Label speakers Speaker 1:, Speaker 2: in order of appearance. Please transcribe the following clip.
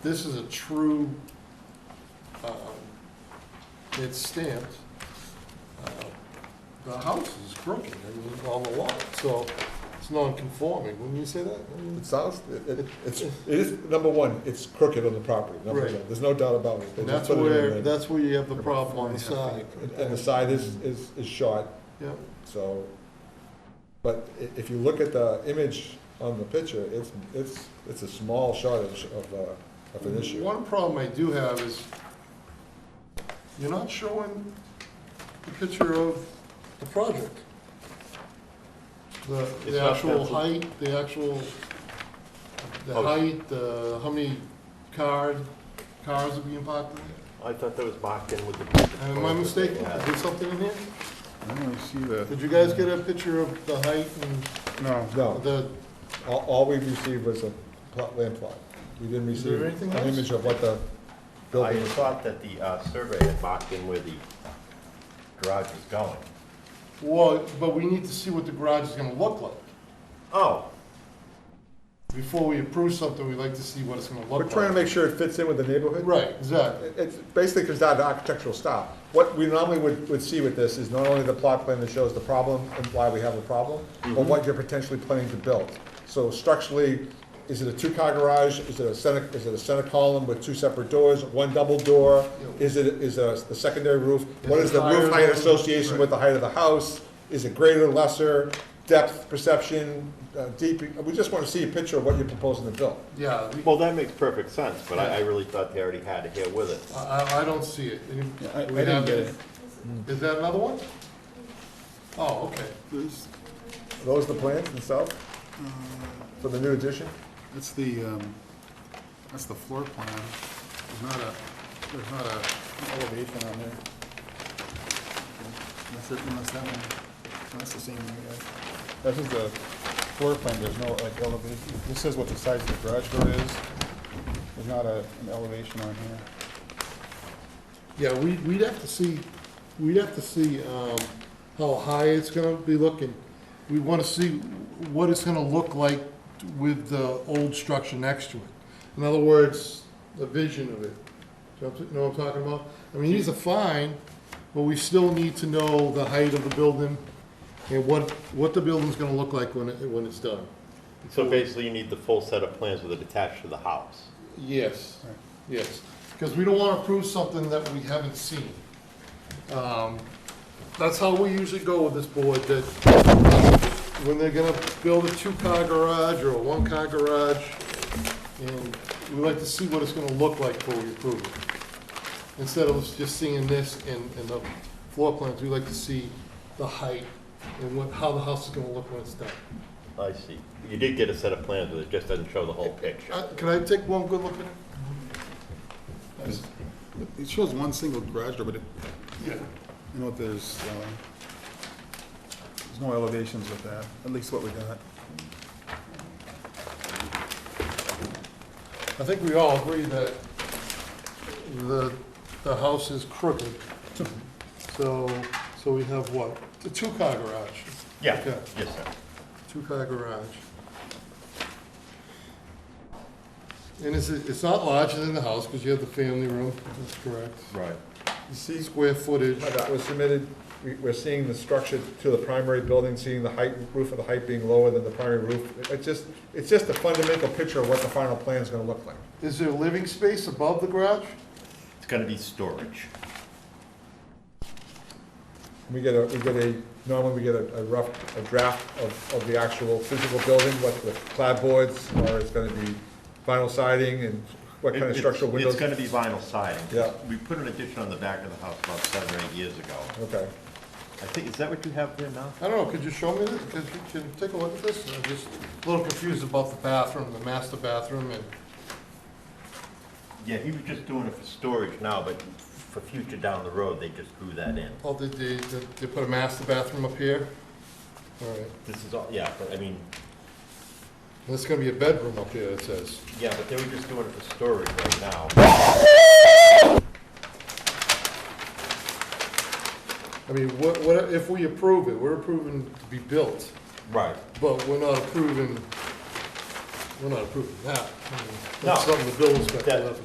Speaker 1: This is a true, um, it's stamped. Uh, The house is crooked, and on the lot, so it's non-conforming, wouldn't you say that?
Speaker 2: It sounds, it, it- it's, it is, number one, it's crooked on the property, number
Speaker 1: Right.
Speaker 2: one, there's no doubt about it. They
Speaker 1: And that's
Speaker 2: just put it in
Speaker 1: where,
Speaker 2: there.
Speaker 1: that's where you have the problem on the side,
Speaker 2: And- And the side is, is, is short,
Speaker 1: yeah.
Speaker 2: so, but i- if you look at the image on the picture, it's, it's, it's a small shortage of, uh, of an issue.
Speaker 1: One problem I do have is, you're not showing the picture of the project. The,
Speaker 3: It's
Speaker 1: the
Speaker 3: not
Speaker 1: actual
Speaker 3: penciled.
Speaker 1: height, the actual, the
Speaker 3: Oh.
Speaker 1: height, the, how many cars, cars are being parked in there?
Speaker 3: I thought that was marked in with the.
Speaker 1: Am I mistaken? Is
Speaker 3: Yeah.
Speaker 1: there something in here?
Speaker 4: I don't really see that.
Speaker 1: Did you guys get a picture of the height
Speaker 4: No,
Speaker 1: and
Speaker 2: No,
Speaker 1: the,
Speaker 2: all, all we received was a plot, land plot. We didn't
Speaker 1: Is there
Speaker 2: receive
Speaker 1: anything
Speaker 2: an
Speaker 1: else?
Speaker 2: image of what the
Speaker 3: I
Speaker 2: building is.
Speaker 3: thought that the uh, survey had marked in where the garage was going.
Speaker 1: well, but we need to see what the garage is gonna look like.
Speaker 3: Oh,
Speaker 1: Before we approve something, we'd like to see what it's gonna look like.
Speaker 2: We're trying to make sure it fits in with the neighborhood.
Speaker 1: Right, exactly.
Speaker 2: It- It basically comes down to architectural style. What we normally would, would see with this is not only the plot plan that shows the problem and why we have a problem,
Speaker 1: Mm-hmm.
Speaker 2: but what you're potentially planning to build. So structurally, is it a two-car garage? Is it a center, is it a center column with two separate doors, one double door? Is it, is it a secondary roof? What
Speaker 1: Is
Speaker 2: is
Speaker 1: it
Speaker 2: the
Speaker 1: higher
Speaker 2: roof height
Speaker 1: than-
Speaker 2: association with the height of the house? Is it greater, lesser, depth perception, uh, deep? We just want to see a picture of what you're proposing to build.
Speaker 1: Yeah, we-
Speaker 3: well, that makes perfect sense, but I, I really thought they already had it here with it.
Speaker 1: I, I- I don't see it. Any-
Speaker 4: Yeah, I- I
Speaker 1: we
Speaker 4: didn't
Speaker 1: have
Speaker 4: get
Speaker 1: it.
Speaker 4: it.
Speaker 1: Is that another one? Oh, okay.
Speaker 4: This-
Speaker 2: Are Those the plans themselves for the new addition?
Speaker 4: that's the, um, that's the floor plan. There's not a, there's not a an elevation on there. That's it, unless that one, that's the same one, guys. That is the floor plan, there's no like elevation, this says what the size of the garage door is. There's not a, an elevation on here.
Speaker 1: Yeah, we, we'd have to see, we'd have to see, um, how high it's gonna be looking. We wanna see what it's gonna look like with the old structure next to it. In other words, the vision of it. Do you know what I'm talking about? I mean, these are fine, but we still need to know the height of the building and what, what the building's gonna look like when it, when it's done.
Speaker 3: So basically, you need the full set of plans with it attached to the house.
Speaker 1: Yes, yes, because we don't want to approve something that we haven't seen. Um, That's how we usually go with this board, that when they're gonna build a two-car garage or a one-car garage, and we like to see what it's gonna look like before we approve it. Instead of us just seeing this and, and the floor plans, we like to see the height and what, how the house is gonna look when it's done.
Speaker 3: I see. You did get a set of plans with it, just doesn't show the whole picture.
Speaker 1: Uh, Can I take one good look at it?
Speaker 4: It shows one single garage door, but it,
Speaker 1: Yeah.
Speaker 4: you know, there's, uh, there's no elevations with that, at least what we got.
Speaker 1: I think we all agree that the, the house is crooked. So, so we have what? A two-car garage.
Speaker 3: Yeah,
Speaker 1: Okay.
Speaker 3: yes, sir.
Speaker 1: Two-car garage. And it's, it's not larger than the house because you have the family room, that's correct.
Speaker 3: Right.
Speaker 2: You see,
Speaker 1: Square footage,
Speaker 2: that was submitted, we- we're seeing the structure to the primary building, seeing the height, roof of the height being lower than the primary roof. It- It's just, it's just a fundamental picture of what the final plan is gonna look like.
Speaker 1: is there living space above the garage?
Speaker 3: It's gonna be storage.
Speaker 2: We get a, we get a, normally we get a a rough, a draft of, of the actual physical building, what the clapboards, or it's gonna be vinyl siding, and what kind
Speaker 3: It-
Speaker 2: of
Speaker 3: it's-
Speaker 2: structural windows.
Speaker 3: It's gonna be vinyl siding.
Speaker 2: Yeah.
Speaker 3: We put an addition on the back of the house about seven or eight years ago.
Speaker 2: Okay,
Speaker 3: I think, is that what you have there now?
Speaker 1: I don't know, could you show me this? Could you, can you take a look at this? I'm just a little confused about the bathroom, the master bathroom and.
Speaker 3: Yeah, he was just doing it for storage now, but for future down the road, they just grew that in.
Speaker 1: Oh, did they, did they put a master bathroom up here? All right,
Speaker 3: This is all, yeah, but I mean,
Speaker 1: there's gonna be a bedroom up here, it says.
Speaker 3: yeah, but they were just doing it for storage right now.
Speaker 1: I mean, what, what, if we approve it, we're approving to be built,
Speaker 3: Right.
Speaker 1: but we're not approving we're not approving that. I mean,
Speaker 3: No.
Speaker 1: That's something the building inspector will have to